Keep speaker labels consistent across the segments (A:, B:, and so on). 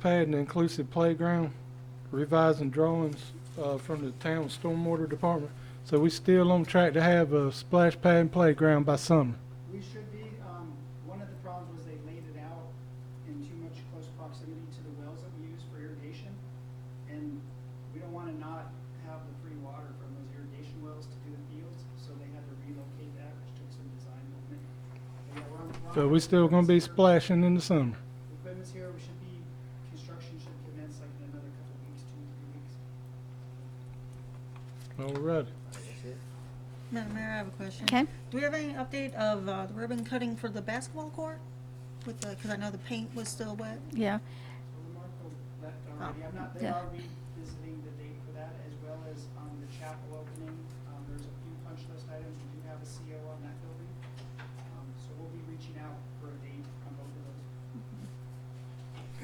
A: pad and inclusive playground, revising drawings uh, from the town stormwater department. So we still on track to have a splash pad and playground by summer.
B: We should be, um, one of the problems was they laid it out in too much close proximity to the wells that we use for irrigation. And we don't wanna not have the free water from those irrigation wells to do the fields, so they had to relocate that, which took some design movement. But yeah, we're on the clock.
A: So we still gonna be splashing in the summer.
B: Equipment's here, we should be, construction should commence like in another couple weeks, two, three
A: All
B: weeks.
A: right.
C: Madam Mayor, I have a question.
D: Okay.
C: Do we have any update of uh, the ribbon cutting for the basketball court? With the, because I know the paint was still wet.
D: Yeah,
B: So Lamarco left already, I'm not, they
D: yeah.
B: are revisiting the date for that, as well as, um, the chapel opening. Um, there's a few punch list items, we do have a CO on that building. Um, so we'll be reaching out for a date on both of those.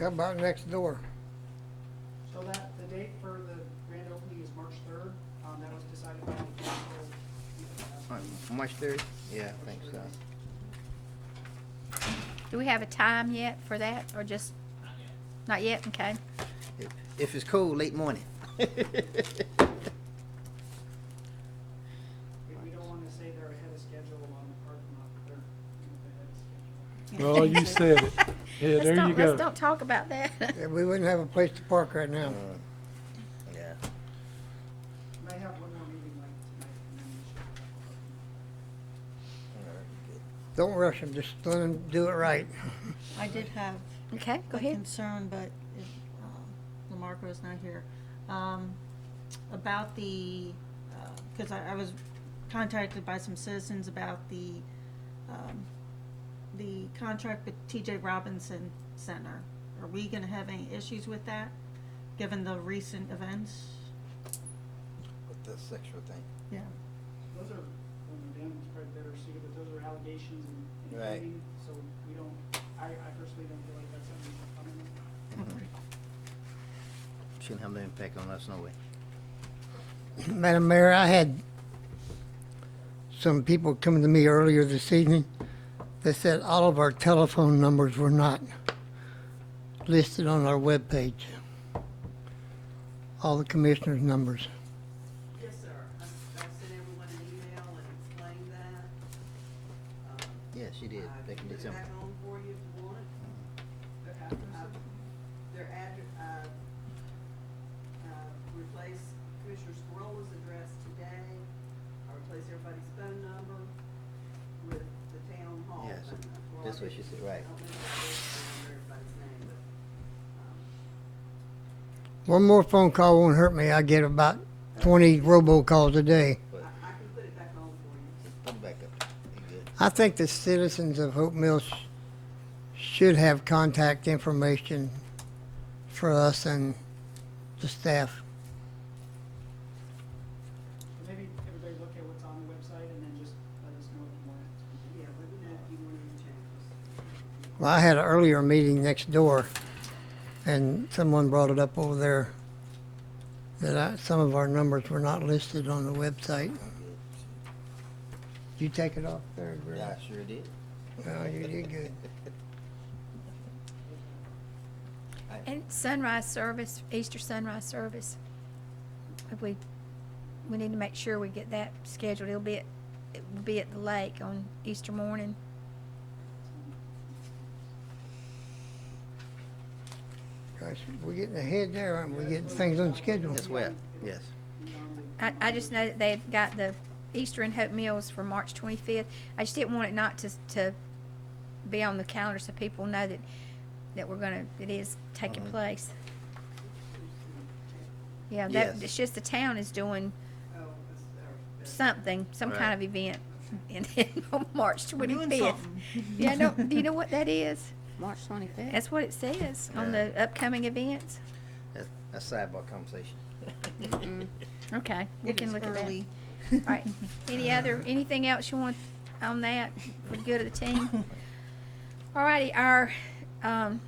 E: How about next door?
B: So that, the date for the grand opening is March third, um, that was decided by the council.
F: On March third? Uh, Yeah, I think so.
D: do we have a time yet for that, or just? Not yet. okay.
F: If- If it's cold, late morning.
B: We, we don't wanna say they're ahead of schedule on the parking lot, but they're, you know, they're ahead of schedule.
A: Well, you said it. Yeah,
D: Let's
A: there
D: don't-
A: you
D: Let's
A: go.
D: don't talk about that.
E: Yeah, We wouldn't have a place to park right now.
F: Mm, Yeah.
B: Might have one more meeting like tonight, and then we should. have a parking lot.
E: Don't rush them, just let them do it right.
C: I did have
D: Okay, go
C: a
D: ahead.
C: concern, but if, um, Lamarco is not here, um, about the, because I, I was contacted by some citizens about the, um, the contract with TJ Robinson Center. Are we going to have any issues with that, given the recent events?
F: With the sexual thing.
C: Yeah.
B: Those are, when they're down, it's probably better suited, but those are allegations and. and
F: Right.
B: pleading, So we don't, I, I personally don't feel like that's something we should comment on.
C: Mm-hmm.
F: Shouldn't have no impact on us, no way.
E: Madam Mayor, I had some people coming to me earlier this evening. They said all of our telephone numbers were not listed on our webpage. All the commissioners' numbers.
G: Yes, sir. I I sent everyone an email and explained that. Um,
F: Yeah, she did,
G: I
F: back in
G: put it
F: December.
G: back on for you if you want it.
B: Their addresses,
G: Their address, uh, uh, replace Commissioner Scrolla's address today. I replace everybody's phone number with the town hall.
F: Yes,
G: phone number.
F: that's what she said, right.
G: I don't know if I remember everybody's name, but, um,
E: One more phone call won't hurt me. I get about 20 robocalls a day.
F: But
G: I, I can put it back on for you.
F: put it back up. You good?
E: I think the citizens of Hope Mills sh- should have contact information for us and the staff.
B: So maybe everybody look at what's on the website and then just let us know if you want it.
G: Yeah, let me know if you want any changes.
E: Well, I had an earlier meeting next door, and someone brought it up over there that I, some of our numbers were not listed on the website. You take it off there, Greg?
F: Yeah, I sure did.
E: No, Oh, you did good.
D: And sunrise service, Easter sunrise service. If We, we need to make sure we get that scheduled. It'll be at, it will be at the lake on Easter morning.
E: Gosh, we're getting ahead there, aren't we? Getting things on schedule.
F: That's wet, yes.
D: I, I just know that they've got the Easter and Hope Meals for March 25th. I just didn't want it not to, to be on the calendar so people know that, that we're gonna, it is taking
F: Mhm.
D: place. Yeah, that,
F: Yes.
D: it's just the town is doing
G: Oh, that's, uh,
D: something, some kind
F: Right.
D: of event in, on March
C: We're doing
D: 25th.
C: something.
D: Yeah, I know, do you know what that is?
H: March 25th.
D: That's what it says on
F: Yeah.
D: the upcoming events.
F: That's that's sidebar conversation.
D: Okay, we
C: It
D: can
C: is
D: look at that.
C: early.
D: All right, any other, anything else you want on that for the good of the team? All righty, our, um,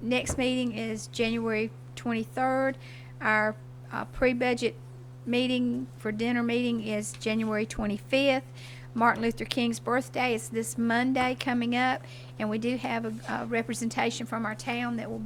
D: next meeting is January twenty-third. Our, uh, pre-budget meeting for dinner meeting is January twenty-fifth. Martin Luther King's birthday is this Monday coming up, and we do have a, a representation from our town that will